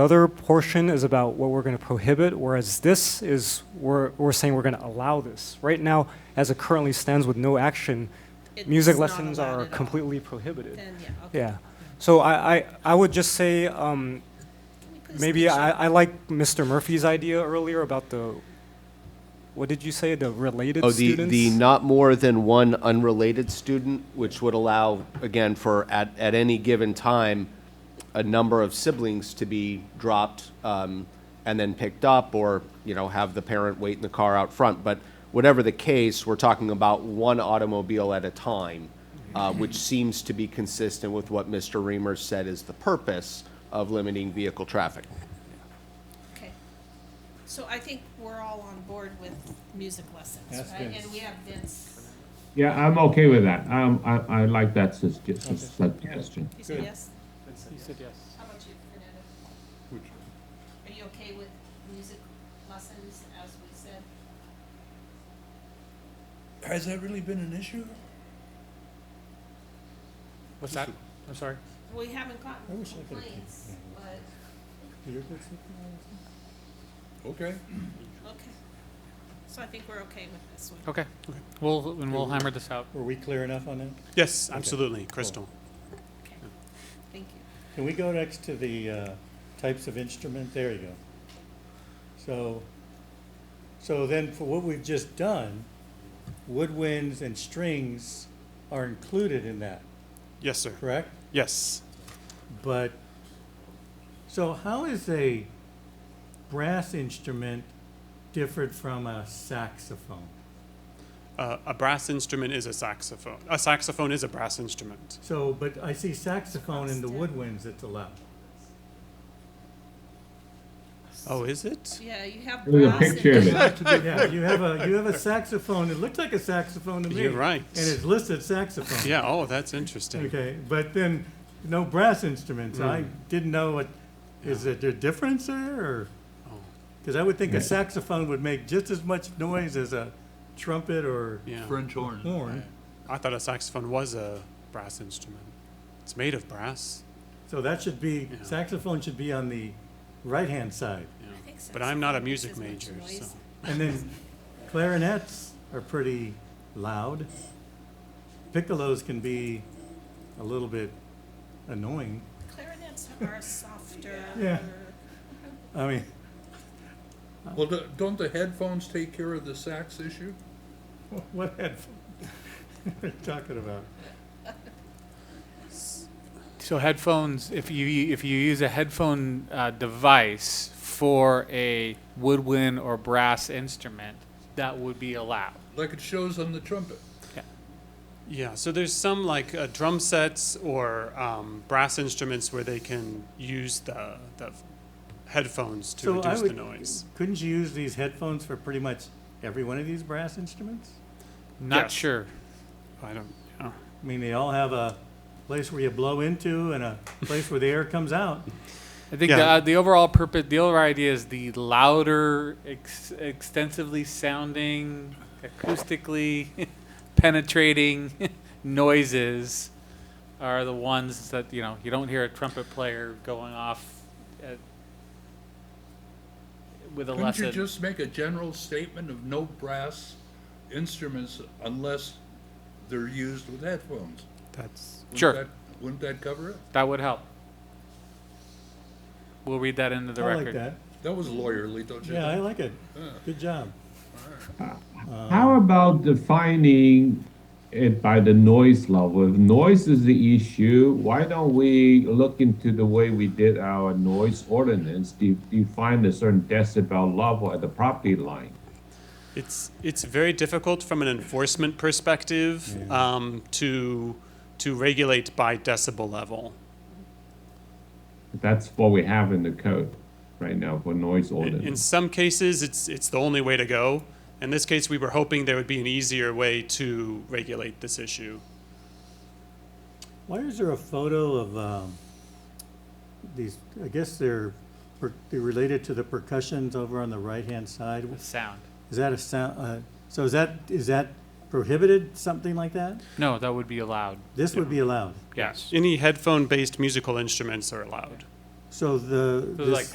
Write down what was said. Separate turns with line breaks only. Other portion is about what we're going to prohibit, whereas this is, we're, we're saying we're going to allow this. Right now, as it currently stands with no action,
It's
music
not
lessons
allowed
are
at all.
completely prohibited.
Then, yeah, okay.
Yeah. So I, I, I would just say, um,
Can we put a
maybe
station?
I, I like Mr. Murphy's idea earlier about the, what did you say, the related
Oh, the,
students?
the not more than one unrelated student, which would allow, again, for at, at any given time, a number of siblings to be dropped um, and then picked up, or, you know, have the parent wait in the car out front. But whatever the case, we're talking about one automobile at a time, uh, which seems to be consistent with what Mr. Reamer said is the purpose of limiting vehicle traffic.
Okay. So I think we're all on board with music lessons, right? And we have Vince,
Yeah, I'm okay with that. Um, I, I like that sus- suggestion.
you said yes?
You said yes.
How about you, Fernando? Are you okay with music lessons, as we said?
Has that really been an issue?
What's that? I'm sorry.
We haven't gotten
I wish I could've
complaints, but,
Okay.
okay. So I think we're okay with this one.
Okay. Okay. We'll and we'll hammer this out.
Were we clear enough on that?
Yes, absolutely, crystal.
Okay. Thank you.
Can we go next to the uh, types of instrument? There you go. So, so then for what we've just done, woodwinds and strings are included in that,
Yes, sir.
correct?
Yes.
But, so how is a brass instrument different from a saxophone?
Uh, a brass instrument is a saxophone. A saxophone is a brass instrument.
So, but I see saxophone in the
Constant.
woodwinds that's allowed.
Oh, is it?
Yeah, you have
There's a
brass and-
picture of it.
Yeah, you have a, you have a saxophone, it looks like a saxophone to me.
You're right.
And it's listed saxophone.
Yeah, oh, that's interesting.
Okay, but then, no brass instruments,
Mm.
I didn't know what, is there a difference there, or?
Oh,
Because I would think a saxophone would make just as much noise as a trumpet or
Yeah.
French horn.
horn,
I thought a saxophone was a brass instrument. It's made of brass.
so that should be,
Yeah.
saxophone should be on the right-hand side.
Yeah.
I think
But I'm not a
saxophone
music
makes as
major,
much
so.
noise.
And then clarinets are pretty loud. Piccolos can be a little bit annoying.
Clarinets are softer.
Yeah. I mean,
Well, do- don't the headphones take care of the sax issue?
what headphone are you talking about?
So headphones. If you if you use a headphone uh, device for a woodwind or brass instrument, that would be allowed.
Like it shows on the trumpet.
Yeah, so there's some like uh, drum sets or um, brass instruments where they can use the, the headphones to
So I
reduce the
would-
noise.
Couldn't you use these headphones for pretty much every one of these brass instruments?
Not
Yes.
sure.
I don't. yeah.
I mean, they all have a place where you blow into and a place where the air comes out.
I think
Yeah.
the, uh, the overall purpose, the overall idea is the louder, ex- extensively sounding, acoustically penetrating noises are the ones that you know you don't hear a trumpet player going off at, with a
Couldn't
lesson.
you just make a general statement of no brass instruments unless they're used with headphones?
That's.
Wouldn't
Sure.
that- Wouldn't that cover it?
that would help. We'll read that into the
I
record.
like that.
That was lawyerly, don't you?
Yeah, I
think?
like it. Good job.
How about defining it by the noise level? If noise is the issue, why don't we look into the way we did our noise ordinance, de- define a certain decibel level at the property line?
It's it's very difficult from an enforcement perspective um, to to regulate by decibel level.
That's what we have in the code right now for noise
In, in
ordinance.
some cases, it's it's the only way to go. In this case, we were hoping there would be an easier way to regulate this issue.
Why is there a photo of um, these? I guess they're per, they're related to the percussions over on the right hand side.
The sound.
Is that a sound? Uh, so is that is that prohibited? Something like that?
No, that would be allowed.
This would be allowed.
Yes.
Any headphone-based musical instruments are allowed.
So the
So
this,
like